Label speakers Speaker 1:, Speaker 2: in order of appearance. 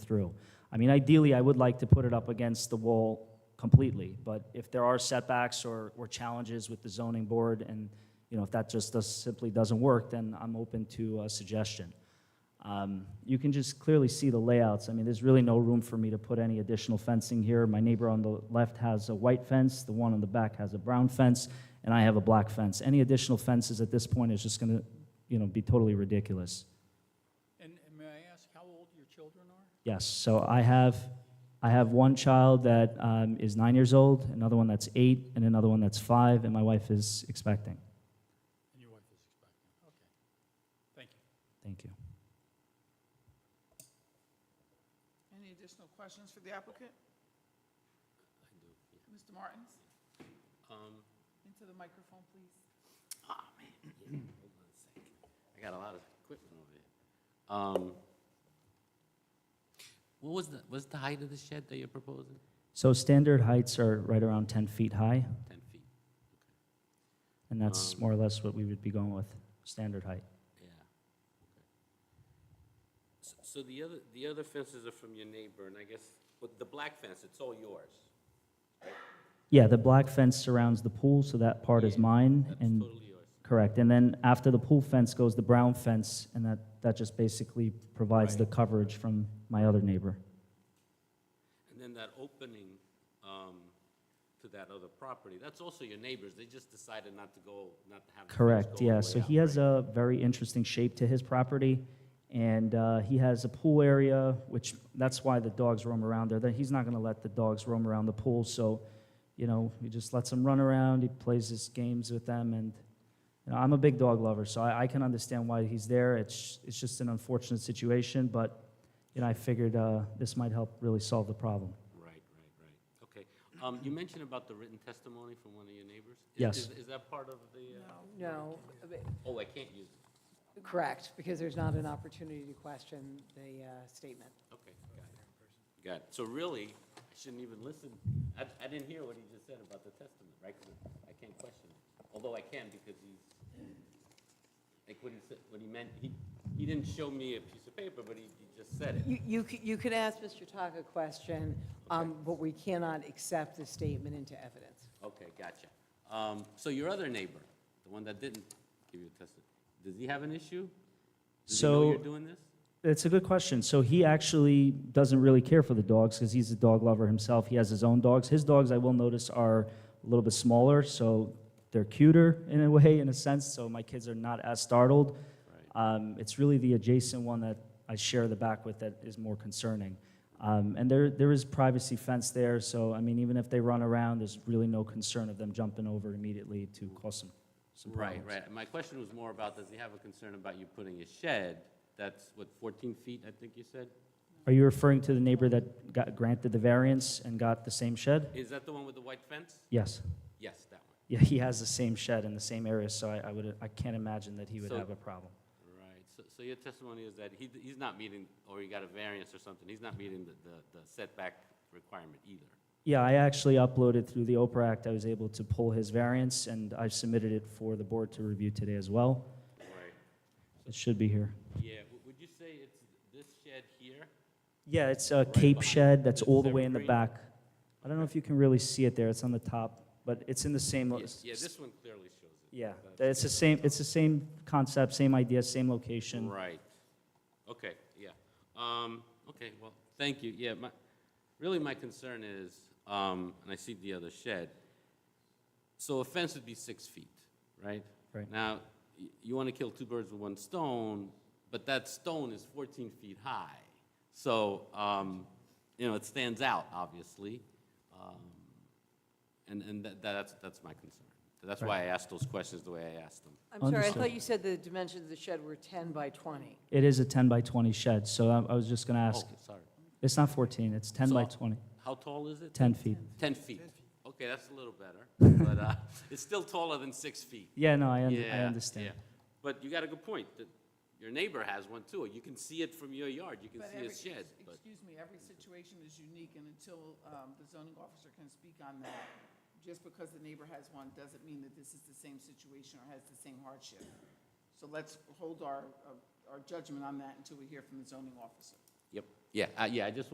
Speaker 1: through. I mean, ideally, I would like to put it up against the wall completely, but if there are setbacks or, or challenges with the zoning board, and, you know, if that just does, simply doesn't work, then I'm open to a suggestion. Um, You can just clearly see the layouts. I mean, there's really no room for me to put any additional fencing here. My neighbor on the left has a white fence, the one on the back has a brown fence, and I have a black fence. Any additional fences at this point is just going to, you know, be totally ridiculous.
Speaker 2: And and may I ask how old your children are?
Speaker 1: Yes, so I have, I have one child that um, is nine years old, another one that's eight, and another one that's five, and my wife is expecting.
Speaker 2: And your wife is expecting, okay. Thank you.
Speaker 1: Thank you.
Speaker 3: Any additional questions for the applicant? Mr. Martins? Into the microphone, please.
Speaker 4: I got a lot of equipment over there. Um, What was the, what's the height of the shed that you're proposing?
Speaker 1: So standard heights are right around 10 feet high,
Speaker 4: Ten feet,
Speaker 1: and that's
Speaker 4: Um,
Speaker 1: more or less what we would be going with, standard height.
Speaker 4: yeah. okay. S- So the other, the other fences are from your neighbor, and I guess, but the black fence, it's all yours.
Speaker 1: Yeah, the black fence surrounds the pool, so that part is
Speaker 4: Yeah,
Speaker 1: mine,
Speaker 4: That's
Speaker 1: and,
Speaker 4: totally yours.
Speaker 1: correct. And then after the pool fence goes the brown fence, and that, that just basically provides the coverage from my other neighbor.
Speaker 4: And then that opening um, to that other property, that's also your neighbor's. They just decided not to go, not to have the fence go all
Speaker 1: Correct,
Speaker 4: the
Speaker 1: yeah,
Speaker 4: way
Speaker 1: so
Speaker 4: out,
Speaker 1: he has
Speaker 4: right?
Speaker 1: a very interesting shape to his property, and uh, he has a pool area, which, that's why the dogs roam around there, that he's not gonna let the dogs roam around the pool, so, you know, he just lets them run around, he plays his games with them, and, you know, I'm a big dog lover, so I, I can understand why he's there, it's, it's just an unfortunate situation, but, you know, I figured uh, this might help really solve the problem.
Speaker 4: Right, right, right. Okay. Um, You mentioned about the written testimony from one of your neighbors? Is-
Speaker 1: Yes.
Speaker 4: is- Is that part of the? uh,
Speaker 5: No, but-
Speaker 4: Oh, I can't use it.
Speaker 5: correct, because there's not an opportunity to question the uh, statement.
Speaker 4: Okay, got it. Got it. So really, I shouldn't even listen. I, I didn't hear what he just said about the testament, right? 'Cause I can't question it. Although I can because he's, like what he said, what he meant, he, he didn't show me a piece of paper, but he, he just said it.
Speaker 5: You, you c- you can ask Mr. Taka a question, um, but we cannot accept the statement into evidence.
Speaker 4: Okay, gotcha. Um, so your other neighbor, the one that didn't give you a testament, does he have an issue? Does he know
Speaker 1: So-
Speaker 4: you're doing this?
Speaker 1: That's a good question. So he actually doesn't really care for the dogs because he's a dog lover himself. He has his own dogs. His dogs, I will notice, are a little bit smaller, so they're cuter in a way, in a sense. So my kids are not as startled. Um, it's really the adjacent one that I share the back with that is more concerning. Um, and there, there is privacy fence there, so I mean, even if they run around, there's really no concern of them jumping over immediately to cause some, some
Speaker 4: Right,
Speaker 1: problems.
Speaker 4: right. My question was more about, does he have a concern about you putting a shed that's, what, 14 feet, I think you said?
Speaker 1: Are you referring to the neighbor that got granted the variance and got the same shed?
Speaker 4: Is that the one with the white fence?
Speaker 1: Yes.
Speaker 4: Yes, that one.
Speaker 1: Yeah, he has the same shed in the same area, so I, I would, I can't imagine that he would
Speaker 4: So-
Speaker 1: have a problem.
Speaker 4: Right. So, so your testimony is that he, he's not meeting, or he got a variance or something, he's not meeting the, the- the setback requirement either.
Speaker 1: Yeah, I actually uploaded through the Oprah Act, I was able to pull his variance, and I've submitted it for the board to review today as well.
Speaker 4: Right.
Speaker 1: It should be here.
Speaker 4: Yeah, w- would you say it's this shed here?
Speaker 1: Yeah, it's a cape
Speaker 4: behind-
Speaker 1: shed that's all the way in the
Speaker 4: Evergreen.
Speaker 1: back. I don't know if you can really see it there, it's on the top, but it's in the same, lo-
Speaker 4: Yeah, Yeah, this one clearly shows it.
Speaker 1: yeah,
Speaker 4: That's-
Speaker 1: it's the same, it's the same concept, same idea, same location.
Speaker 4: Right. Okay, yeah. Um, okay, well, thank you. Yeah, my, really my concern is, um, and I see the other shed. So a fence would be six feet, right?
Speaker 1: Right.
Speaker 4: Now, y- you want to kill two birds with one stone, but that stone is fourteen feet high. So, um, you know, it stands out, obviously. Um, and, and that, that's, that's my concern. That's why I asked those questions the way I asked them.
Speaker 5: I'm sorry, I
Speaker 1: Understood.
Speaker 5: thought you said the dimensions of the shed were 10 by 20.
Speaker 1: It is a ten by twenty shed, so I, I was just gonna ask,
Speaker 4: Oh, sorry.
Speaker 1: it's not fourteen, it's ten
Speaker 4: So-
Speaker 1: by twenty.
Speaker 4: How tall is it?
Speaker 1: 10 feet.
Speaker 4: 10 feet. Okay, that's a little better, but uh, it's still taller than six feet.
Speaker 1: Yeah, no, I, un- I
Speaker 4: Yeah,
Speaker 1: understand.
Speaker 4: yeah. But you got a good point, that your neighbor has one too. You can see it from your yard, you can
Speaker 3: But
Speaker 4: see
Speaker 3: every-
Speaker 4: his shed,
Speaker 3: ex-
Speaker 4: but,
Speaker 3: Excuse me, every situation is unique, and until um, the zoning officer can speak on that, just because the neighbor has one doesn't mean that this is the same situation or has the same hardship. So let's hold our, uh, our judgment on that until we hear from the zoning officer.
Speaker 4: yep, Yeah, uh, yeah, I just